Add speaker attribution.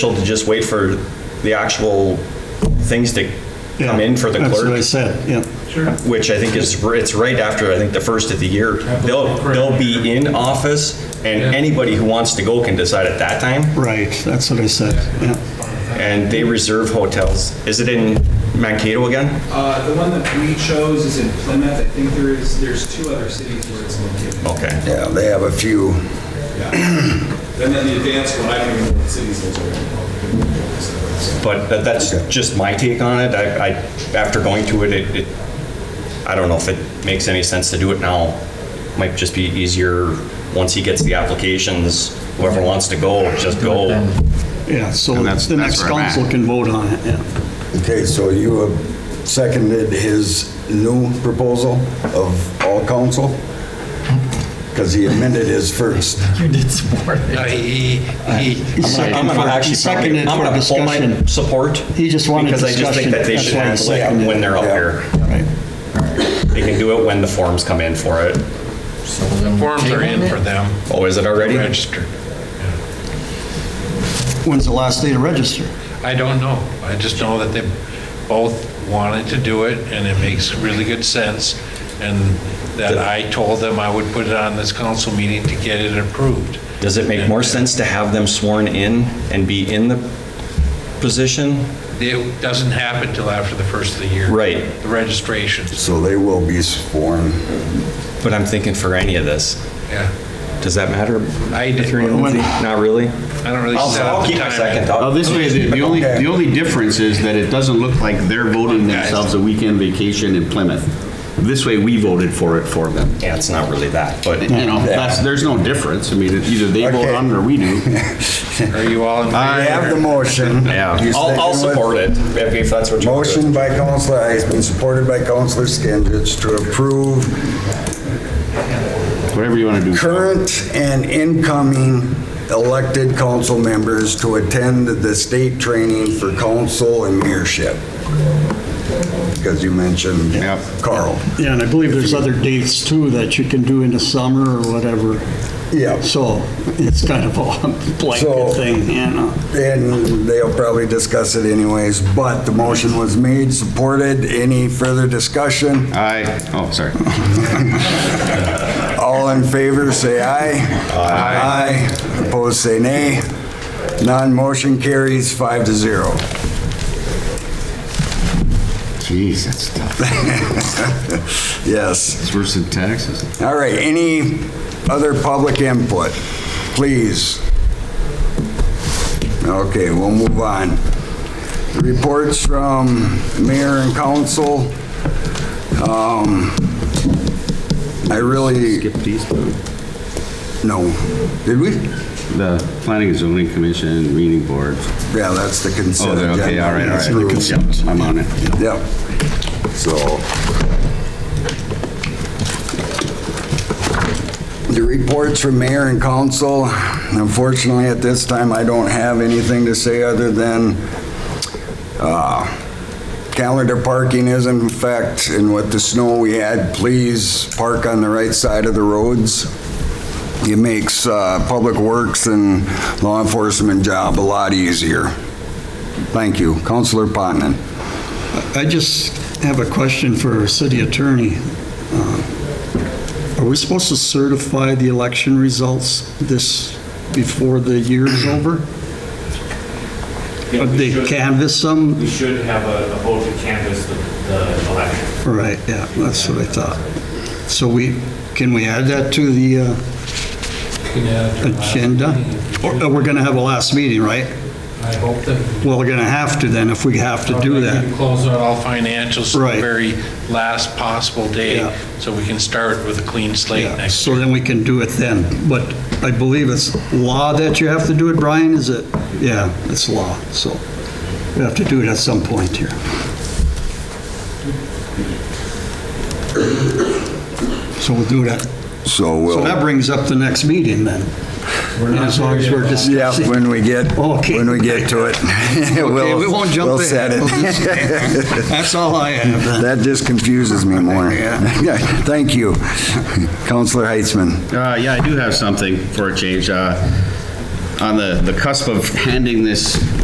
Speaker 1: to just wait for the actual things to come in for the
Speaker 2: That's what I
Speaker 1: clerk,
Speaker 2: said, yeah.
Speaker 3: Sure.
Speaker 1: which I think is, r- it's right after, I think, the first of the year. They'll, they'll be in office, and
Speaker 3: Yeah.
Speaker 1: anybody who wants to go can decide at that time,
Speaker 2: Right, that's what I said, yeah.
Speaker 1: and they reserve hotels. Is it in Mankato again?
Speaker 4: Uh, the one that we chose is in Plymouth. I think there is, there's two other cities where it's located.
Speaker 1: Okay.
Speaker 5: Yeah, they have a few.
Speaker 4: And then the advanced one, I don't even know what cities those are in.
Speaker 1: But tha- that's just my take on it. I, I, after going to it, it, it, I don't know if it makes any sense to do it now. Might just be easier, once he gets the applications, whoever wants to go, just go.
Speaker 2: Yeah, so
Speaker 6: And that's-
Speaker 2: the
Speaker 6: that's
Speaker 2: next
Speaker 6: where I'm at.
Speaker 2: council can vote on it, yeah.
Speaker 5: Okay, so you have seconded his new proposal of all council? Because he amended his first.
Speaker 7: No, he, he, he-
Speaker 1: I'm gonna actually probably,
Speaker 2: Seconded
Speaker 1: I'm
Speaker 2: for
Speaker 1: gonna pull my
Speaker 2: discussion.
Speaker 1: support.
Speaker 2: He just wanted
Speaker 1: Because I just think
Speaker 2: discussion.
Speaker 1: that they
Speaker 2: That's
Speaker 1: should
Speaker 2: why he
Speaker 1: handle it
Speaker 2: seconded
Speaker 1: when they're up
Speaker 5: Yeah.
Speaker 1: here.
Speaker 2: Right.
Speaker 1: They can do it when the forms come in for it.
Speaker 7: forms are in for them,
Speaker 1: Oh, is it already?
Speaker 7: registered.
Speaker 2: When's the last day to register?
Speaker 7: I don't know. I just know that they both wanted to do it, and it makes really good sense, and that I told them I would put it on this council meeting to get it approved.
Speaker 1: Does it make more sense to have them sworn in and be in the position?
Speaker 7: It doesn't happen till after the first of the year.
Speaker 1: Right.
Speaker 7: The registration,
Speaker 5: So they will be sworn.
Speaker 1: But I'm thinking for any of this.
Speaker 7: yeah.
Speaker 1: Does that matter?
Speaker 7: I did-
Speaker 1: Catherine, Lindsay? Not really?
Speaker 7: I don't really
Speaker 1: I'll-
Speaker 7: set up
Speaker 1: I'll
Speaker 7: the
Speaker 1: keep my
Speaker 7: time.
Speaker 1: second
Speaker 6: Well,
Speaker 1: thought.
Speaker 6: Oh, this way, the the only, the only difference is that it doesn't look like they're voting themselves a weekend vacation in Plymouth. This way, we voted for it for them.
Speaker 1: Yeah, it's not really that, but
Speaker 6: You know, that's, there's no difference. I mean, it- either they vote
Speaker 5: Okay.
Speaker 6: on it or we do.
Speaker 7: Are you all in favor?
Speaker 5: I have the motion. You
Speaker 1: I'll, I'll
Speaker 5: second with-
Speaker 1: support it if if that's what you.
Speaker 5: Motion by Counselor Heisman, supported by Counselor Skinsich to approve
Speaker 6: Whatever you want to do.
Speaker 5: current and incoming elected council members to attend the state training for council and mayorship. Because you mentioned
Speaker 6: Yep.
Speaker 5: Carl.
Speaker 2: Yeah, and I believe there's other dates too that you can do in the summer or whatever.
Speaker 5: Yeah.
Speaker 2: So it's kind of a
Speaker 5: So-
Speaker 2: blanket thing, you know?
Speaker 5: And they'll probably discuss it anyways, but the motion was made, supported. Any further discussion?
Speaker 6: I, oh, sorry.
Speaker 5: All in favor, say aye. Aye. Aye. Opposed, say nay. Non-motion carries five to zero.
Speaker 6: Jeez, that's tough.
Speaker 5: Yes.
Speaker 6: It's worse than taxes.
Speaker 5: All right, any other public input, please? Okay, we'll move on. Reports from mayor and council. Um, I really,
Speaker 6: Skip these, two.
Speaker 5: no, did we?
Speaker 6: the Planning and Zoning Commission, Reading Board.
Speaker 5: Yeah, that's the
Speaker 6: Oh,
Speaker 5: consent.
Speaker 6: they're- okay,
Speaker 5: agenda.
Speaker 6: all right, all
Speaker 5: That's
Speaker 6: right.
Speaker 5: rules.
Speaker 6: Yep, I'm on it.
Speaker 5: Yep. So. The reports from mayor and council, unfortunately, at this time, I don't have anything to say other than uh, calendar parking is in effect, and with the snow we had, please park on the right side of the roads. It makes uh, Public Works and law enforcement job a lot easier. Thank you. Counselor Potenon.
Speaker 2: I just have a question for our city attorney. Uh, Are we supposed to certify the election results this, before the year is over?
Speaker 8: Yeah,
Speaker 2: Or
Speaker 8: we
Speaker 2: They
Speaker 8: should-
Speaker 2: canvass them?
Speaker 8: We should have a a vote to canvass the- the election.
Speaker 2: Right, yeah, that's what I thought. So we, can we add that to the uh, agenda? Or or we're going to have a last meeting, right?
Speaker 9: I hope that.
Speaker 2: Well, we're going to have to then, if we have to do that.
Speaker 9: You Close out
Speaker 7: All financials,
Speaker 2: Right.
Speaker 7: the very last possible
Speaker 2: Yeah.
Speaker 7: day, so we can start with a clean slate
Speaker 2: Yeah,
Speaker 7: next
Speaker 2: So then we can do it then, but I believe it's law that you have to do it, Brian, is it? Yeah, it's law, so we have to do it at some point here. So we'll do that.
Speaker 5: So
Speaker 2: So that
Speaker 5: we'll,
Speaker 2: brings up the next meeting then. As long as we're
Speaker 5: yeah,
Speaker 2: discussing.
Speaker 5: when we get,
Speaker 2: Okay.
Speaker 5: when we get to it.
Speaker 2: Okay,
Speaker 5: we'll-
Speaker 2: we won't jump
Speaker 5: We'll
Speaker 2: ahead.
Speaker 5: set
Speaker 2: We'll
Speaker 5: it.
Speaker 2: just- That's all I have then.
Speaker 5: That just confuses me more. Yeah, Thank you. Counselor Heitzman.
Speaker 6: Uh, yeah, I do have something for a change. Uh, on the, the cusp of handing this